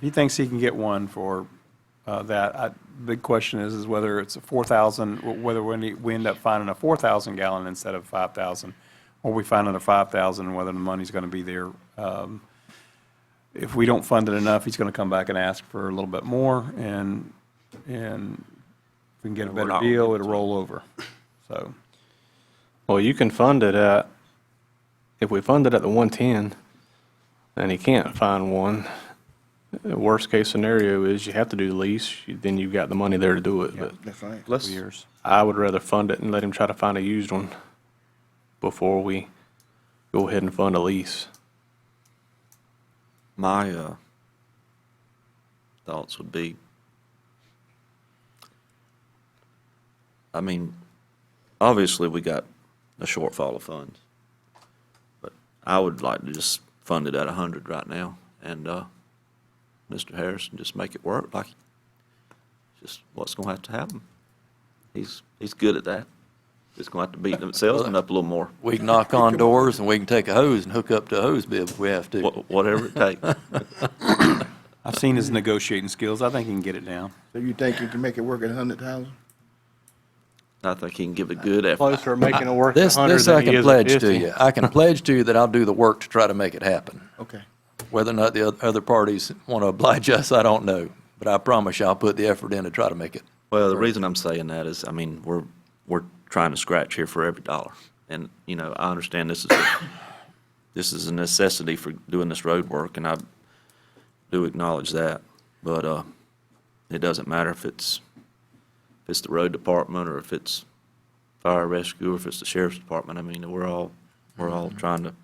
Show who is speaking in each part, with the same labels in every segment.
Speaker 1: he thinks he can get one for uh, that. I- Big question is, is whether it's a 4,000, wh- whether we we end up finding a 4,000 gallon instead of 5,000, or we find another 5,000, and whether the money's going to be there. Um, If we don't fund it enough, he's going to come back and ask for a little bit more, and, and if we can get a
Speaker 2: We're
Speaker 1: better
Speaker 2: not gonna
Speaker 1: deal,
Speaker 2: get
Speaker 1: it'll roll over. So,
Speaker 3: Well, you can fund it at, if we fund it at the 110, and he can't find one, uh, worst case scenario is you have to do the lease, you- then you've got the money there to do it. But
Speaker 4: That's right.
Speaker 2: Let's,
Speaker 3: I would rather fund it and let him try to find a used one before we go ahead and fund a lease.
Speaker 2: my uh, thoughts would be, I mean, obviously we got a shortfall of funds, but I would like to just fund it at a hundred right now, and uh, Mr. Harrison just make it work like just what's going to have to happen. He's he's good at that. Just going to have to beat themselves up a little more,
Speaker 5: We can knock on doors and we can take a hose and hook up to a hose bib if we have to.
Speaker 2: wha- whatever it takes.
Speaker 1: I've seen his negotiating skills. I think he can get it down.
Speaker 4: So you think you can make it work at a hundred thousand?
Speaker 2: I think he can give a good effort.
Speaker 3: Closer to making it work
Speaker 5: This, this I can pledge to you. I can pledge to you that I'll do the work to try to make it happen.
Speaker 4: Okay.
Speaker 5: Whether or not the oth- other parties want to oblige us, I don't know. But I promise you, I'll put the effort in to try to make it.
Speaker 2: Well, the reason I'm saying that is, I mean, we're, we're trying to scratch here for every dollar. And, you know, I understand this is, a- this is a necessity for doing this road work, and I do acknowledge that. But, uh, it doesn't matter if it's, if it's the road department, or if it's fire rescue, or if it's the sheriff's department. I mean, we're all, we're all trying to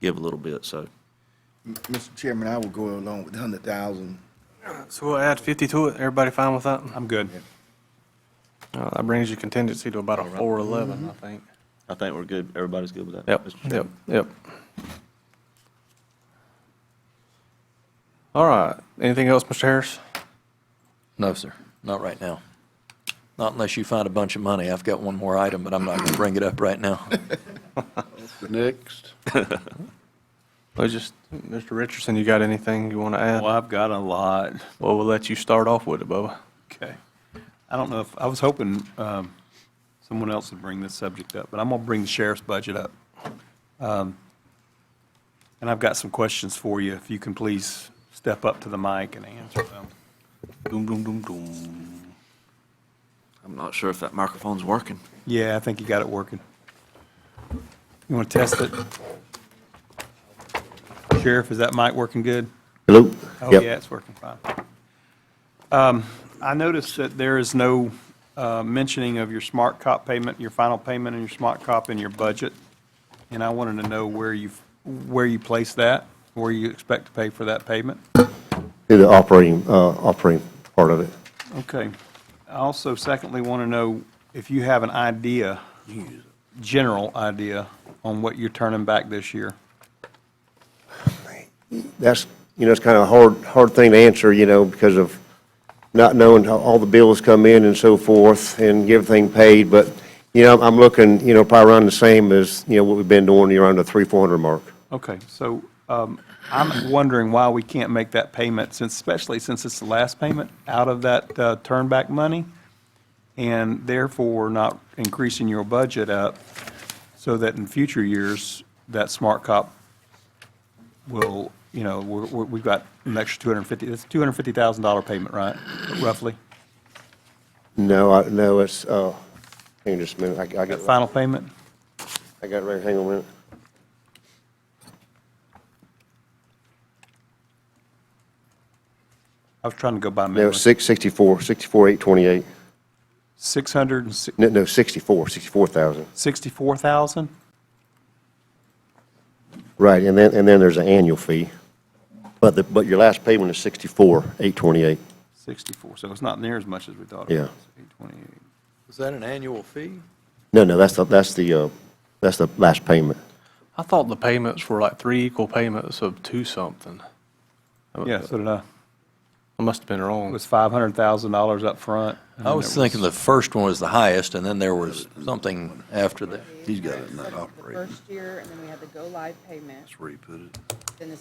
Speaker 2: give a little bit, so.
Speaker 4: M- Mr. Chairman, I will go along with a hundred thousand.
Speaker 3: So we'll add 50 to it. Everybody fine with that?
Speaker 1: I'm good.
Speaker 3: That brings your contingency to about a 411, I think.
Speaker 2: I think we're good. Everybody's good with that?
Speaker 3: Yep,
Speaker 2: Mr. Chairman?
Speaker 3: yep, yep. All right, anything else, Mr. Harris?
Speaker 5: No, sir, not right now. Not unless you find a bunch of money. I've got one more item, but I'm not going to bring it up right now.
Speaker 4: Next.
Speaker 3: I just, Mr. Richardson, you got anything you want to add?
Speaker 1: Well, I've got a lot.
Speaker 3: Well, we'll let you start off with it, Bubba.
Speaker 1: Okay. I don't know if, I was hoping um, someone else would bring this subject up, but I'm going to bring the sheriff's budget up. Um, And I've got some questions for you, if you can please step up to the mic and answer them.
Speaker 3: Doom, doom, doom, doom.
Speaker 2: I'm not sure if that microphone's working.
Speaker 1: Yeah, I think you got it working. You want to test it? Sheriff, is that mic working good?
Speaker 6: Hello?
Speaker 1: Oh,
Speaker 6: Yep.
Speaker 1: yeah, it's working fine. Um, I noticed that there is no uh, mentioning of your smart cop payment, your final payment and your smart cop in your budget, and I wanted to know where you, where you place that, where you expect to pay for that payment.
Speaker 6: Do the operating, uh, operating part of it.
Speaker 1: Okay. I also secondly want to know if you have an idea, general idea, on what you're turning back this year.
Speaker 6: That's, you know, it's kind of a hard, hard thing to answer, you know, because of not knowing how all the bills come in and so forth and get everything paid. But, you know, I'm looking, you know, probably around the same as, you know, what we've been doing, around the three, four hundred mark.
Speaker 1: Okay, so um, I'm wondering why we can't make that payment, since, especially since it's the last payment out of that uh, turnback money, and therefore not increasing your budget up so that in future years, that smart cop will, you know, we're- we're- we've got an extra 250, it's $250,000 payment, right, roughly?
Speaker 6: No, I, no, it's, uh, hang on just a minute, I, I
Speaker 1: That
Speaker 6: got,
Speaker 1: final payment?
Speaker 6: I got it right, hang on a minute.
Speaker 1: I was trying to go by
Speaker 6: No,
Speaker 1: memory.
Speaker 6: six, sixty-four, sixty-four, eight twenty-eight.
Speaker 1: 600,
Speaker 6: No, no, sixty-four, sixty-four thousand.
Speaker 1: 64,000?
Speaker 6: Right, and then, and then there's an annual fee. But the, but your last payment is sixty-four, eight twenty-eight.
Speaker 1: 64, so it's not near as much as we thought it
Speaker 6: Yeah.
Speaker 1: was. 828.
Speaker 5: Is that an annual fee?
Speaker 6: No, no, that's the, that's the, uh, that's the last payment.
Speaker 3: I thought the payments were like three equal payments of two something.
Speaker 1: Yeah, so did I.
Speaker 3: I must have been
Speaker 1: It
Speaker 3: wrong.
Speaker 1: was $500,000 up front. and
Speaker 5: I
Speaker 1: then
Speaker 5: was
Speaker 1: there
Speaker 5: thinking the first one was the highest, and then there was something after that.
Speaker 7: He's got it not operating. First year, and then we had the go-live payment. That's where you put it. Then the